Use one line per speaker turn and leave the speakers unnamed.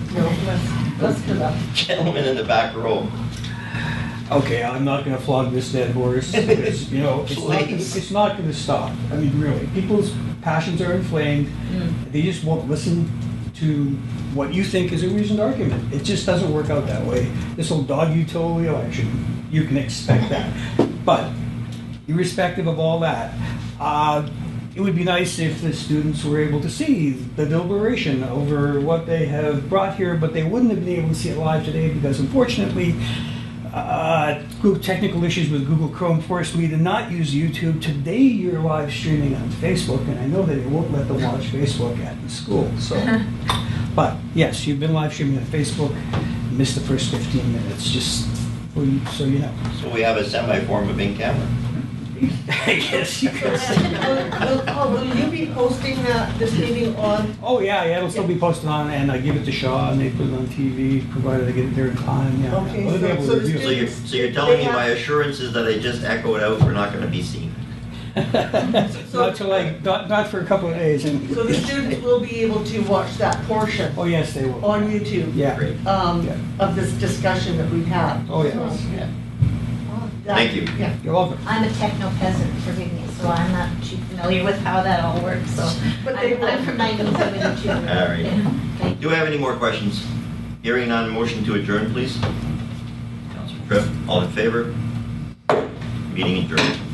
Let's go back.
Gentleman in the back row.
Okay, I'm not gonna flog this dead horse, because, you know, it's not,
Please.
it's not gonna stop. I mean, really, people's passions are inflamed, they just won't listen to what you think is a reasoned argument. It just doesn't work out that way. This'll dog you till the election, you can expect that. But irrespective of all that, uh, it would be nice if the students were able to see the deliberation over what they have brought here, but they wouldn't have been able to see it live today because unfortunately, uh, Google technical issues with Google Chrome forced me to not use YouTube. Today, you're live streaming on Facebook, and I know that it won't let them watch Facebook at the school. So, but yes, you've been live streaming on Facebook. Missed the first 15 minutes, just for you, so you know.
So we have a semi-form of in-camera.
yes, you could.
Will, will- Paul, will you be posting uh, this meeting on?
Oh yeah, yeah, it'll still be posted on, and I give it to Shaw, and they put it on TV, provided I get it there in time. Yeah.
Okay,
Well, they'll
so-
be able to
so the
review it.
So you're, so you're telling me my assurances that I just echoed out were not gonna be seen?
not till like not, not for a couple of days. And
So the students will be able to watch that portion
oh yes, they will.
on YouTube?
yeah.
Great.
Um,
Yeah.
of this discussion that we have.
Oh yes.
Yeah.
That-
Thank you.
Yeah.
You're welcome.
I'm a techno peasant, forgive me, so I'm not too familiar with how that all works, so.
But they
I'm- I'm
will.
from 1972.
All right.
Thank
Do we have any more questions? Hearing none, motion to adjourn, please. Councilor Tripp, all in favor? Meeting adjourned.